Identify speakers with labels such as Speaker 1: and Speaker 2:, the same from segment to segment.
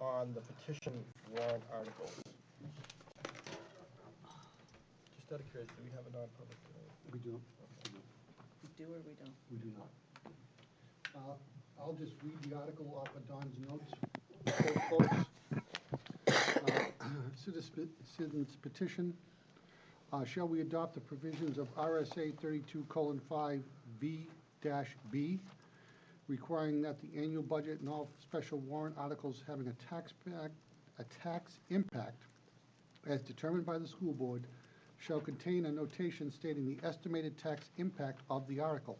Speaker 1: on the petition warrant articles. Just out of curiosity, do we have a non-public tonight?
Speaker 2: We do,
Speaker 3: We do or we don't?
Speaker 2: we do not. Uh, I'll just read the article off of Don's notes. Folks, uh, citizen- Citizens petition, uh, shall we adopt the provisions of RSA 32:5V-B requiring that the annual budget and all special warrant articles having a tax pack, a tax impact as determined by the school board, shall contain a notation stating the estimated tax impact of the article.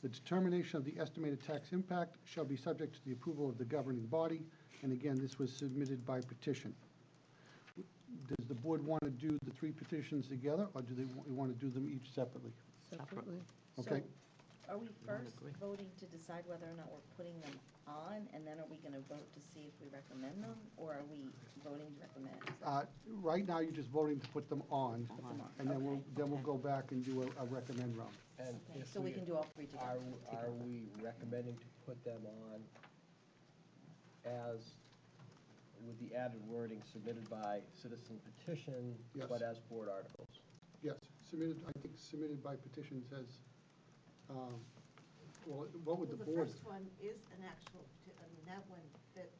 Speaker 2: The determination of the estimated tax impact shall be subject to the approval of the governing body, and again, this was submitted by petition. Does the board want to do the three petitions together, or do they want to do them each separately?
Speaker 3: Separately.
Speaker 2: Okay.
Speaker 3: Are we first voting to decide whether or not we're putting them on, and then are we going to vote to see if we recommend them? Or are we voting to recommend?
Speaker 2: Uh, Right now, you're just voting to put them on,
Speaker 3: them on,
Speaker 2: and then we'll,
Speaker 3: okay,
Speaker 2: then we'll go back and do a- a recommend round.
Speaker 1: And
Speaker 3: Okay,
Speaker 1: if
Speaker 3: So we can do all three
Speaker 1: Are,
Speaker 3: together?
Speaker 1: are we recommending to put them on as, with the added wording submitted by citizen petition,
Speaker 2: Yes.
Speaker 1: but as board articles?
Speaker 2: Yes, submitted, I think submitted by petition says, um, well, what would the
Speaker 4: Well, the
Speaker 2: board?
Speaker 4: first one is an actual, peti- I mean, that one, that,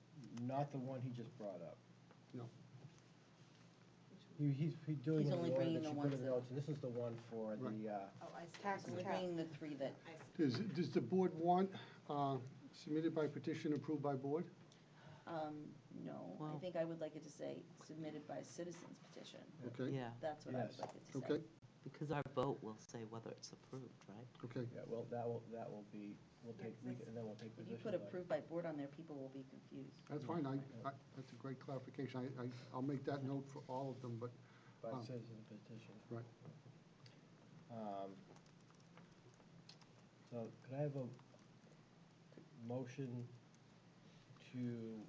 Speaker 1: Not the one he just brought up.
Speaker 2: No,
Speaker 1: He- He's he's doing
Speaker 3: He's
Speaker 1: it in
Speaker 3: only
Speaker 1: the order
Speaker 3: bringing
Speaker 1: that
Speaker 3: the
Speaker 1: you put
Speaker 3: ones
Speaker 1: in the
Speaker 3: that-
Speaker 1: notes, and this is the one for the, uh,
Speaker 4: oh, I see.
Speaker 3: We're bringing the three that,
Speaker 4: I see.
Speaker 2: Does, does the board want uh, submitted by petition, approved by board?
Speaker 3: um, no, I think I would like it to say submitted by citizens petition.
Speaker 2: Okay,
Speaker 5: Yeah,
Speaker 3: That's what I would
Speaker 1: Yes.
Speaker 3: like it to say.
Speaker 2: okay,
Speaker 5: because our vote will say whether it's approved, right?
Speaker 2: okay.
Speaker 1: yeah, well, that will, that will be, we'll take, we can- and then we'll take
Speaker 3: If
Speaker 1: position.
Speaker 3: you put
Speaker 1: by-
Speaker 3: approved by board on there, people will be confused.
Speaker 2: That's fine, I, uh, I- that's a great clarification. I, I, I'll make that note for all of them, but,
Speaker 1: By
Speaker 2: um,
Speaker 1: citizen petition.
Speaker 2: right.
Speaker 1: Um, So could I have a motion to,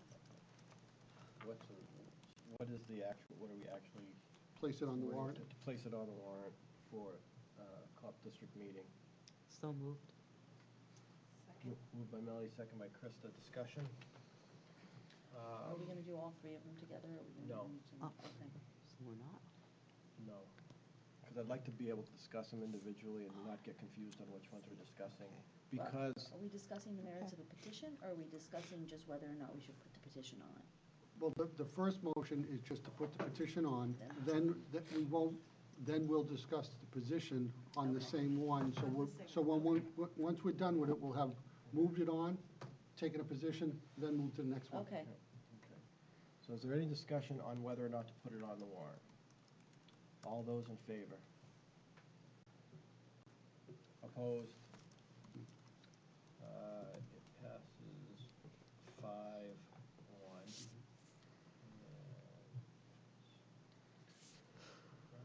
Speaker 1: what's, the- what is the actual, what are we actually?
Speaker 2: Place it on the warrant.
Speaker 1: To place it on the warrant for uh, COP district meeting.
Speaker 5: So moved.
Speaker 4: Second.
Speaker 1: Mo- Moved by Melody, second by Krista, discussion?
Speaker 3: Are we
Speaker 1: Um,
Speaker 3: going to do all three of them together? or Are we going to
Speaker 1: No.
Speaker 3: do each of them?
Speaker 5: Oh.
Speaker 3: Okay.
Speaker 5: So we're not.
Speaker 1: No, because I'd like to be able to discuss them individually and not get confused on which ones we're discussing. Because
Speaker 3: Are we discussing the merits of the petition, or are we discussing just whether or not we should put the petition on?
Speaker 2: Well, the, the first motion is just to put the petition on, then, that we won't, then we'll discuss the position on the same one, so we're, so when, we- once we're done with it, we'll have moved it on, taken a position, then moved to the next one.
Speaker 3: Okay,
Speaker 1: Okay. So is there any discussion on whether or not to put it on the warrant? All those in favor? Opposed? Uh, It passes five, one.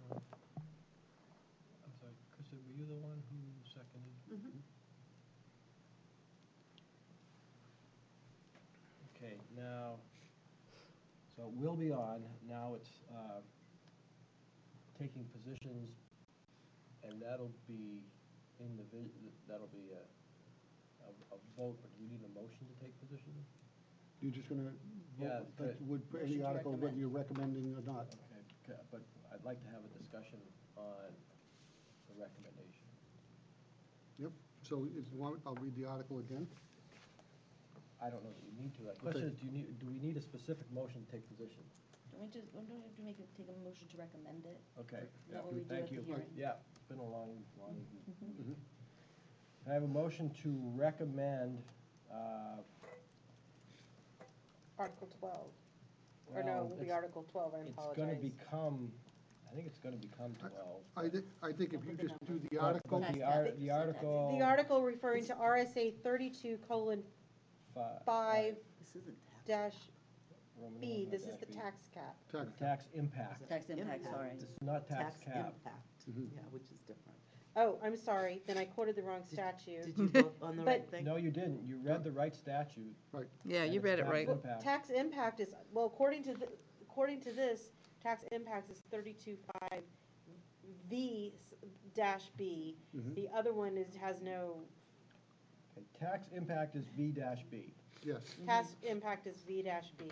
Speaker 1: And- I'm sorry, Krista, were you the one who seconded? Okay, now, so it will be on, now it's uh, taking positions, and that'll be in the, vi- that'll be a, a- a vote, but do we need a motion to take position?
Speaker 2: You're just gonna
Speaker 1: Yeah,
Speaker 2: vote, like,
Speaker 1: but-
Speaker 2: would,
Speaker 3: Motion
Speaker 2: any
Speaker 3: to
Speaker 2: article, whether
Speaker 3: recommend.
Speaker 2: you're recommending or not.
Speaker 1: Okay, ca- but I'd like to have a discussion on the recommendation.
Speaker 2: Yep, so is, want- I'll read the article again.
Speaker 1: I don't know that you need to, the question is, do you need, do we need a specific motion to take position?
Speaker 3: don't we just, don't we have to make, a- take a motion to recommend it?
Speaker 1: Okay.
Speaker 3: Is that what we do
Speaker 1: Thank
Speaker 3: at the
Speaker 1: you.
Speaker 3: hearing?
Speaker 1: Yeah, it's been a long, long week. Can I have a motion to recommend, uh,
Speaker 6: Article 12. Or
Speaker 1: Well,
Speaker 6: no, it will be
Speaker 1: it's-
Speaker 6: Article 12, I
Speaker 1: it's gonna
Speaker 6: apologize.
Speaker 1: become, I think it's gonna become twelve.
Speaker 2: I thi, I think if you just do the article,
Speaker 1: But The
Speaker 3: That's- I
Speaker 1: ar-
Speaker 3: think
Speaker 1: the
Speaker 3: so, that's-
Speaker 1: article.
Speaker 6: The article referring to RSA 32 colon
Speaker 1: fi-
Speaker 6: 5
Speaker 5: This isn't tax.
Speaker 6: dash
Speaker 1: Roman
Speaker 6: B,
Speaker 1: numeral
Speaker 6: this is
Speaker 1: dash
Speaker 6: the
Speaker 1: B.
Speaker 6: tax cap.
Speaker 2: tax,
Speaker 1: Tax impact.
Speaker 3: Tax impact,
Speaker 5: Impact.
Speaker 3: sorry.
Speaker 1: This is not tax cap.
Speaker 5: impact,
Speaker 2: Mhm.
Speaker 5: yeah, which is different.
Speaker 6: Oh, I'm sorry, then I quoted the wrong
Speaker 5: Did
Speaker 6: statute.
Speaker 5: you vote on the right
Speaker 6: But-
Speaker 5: thing?
Speaker 1: No, you didn't. You read the right statute.
Speaker 2: right,
Speaker 7: Yeah,
Speaker 1: and
Speaker 7: you
Speaker 1: it's
Speaker 7: read it
Speaker 1: tax
Speaker 7: right.
Speaker 6: Well,
Speaker 1: impact.
Speaker 6: Tax impact is, well, according to, the- according to this, tax impact is 32.5 V s- dash B.
Speaker 1: Hmm?
Speaker 2: Mhm.
Speaker 6: The other one is, has no,
Speaker 1: Okay, Tax impact is B dash B.
Speaker 2: yes.
Speaker 1: Hmm.
Speaker 6: tax impact is V dash B.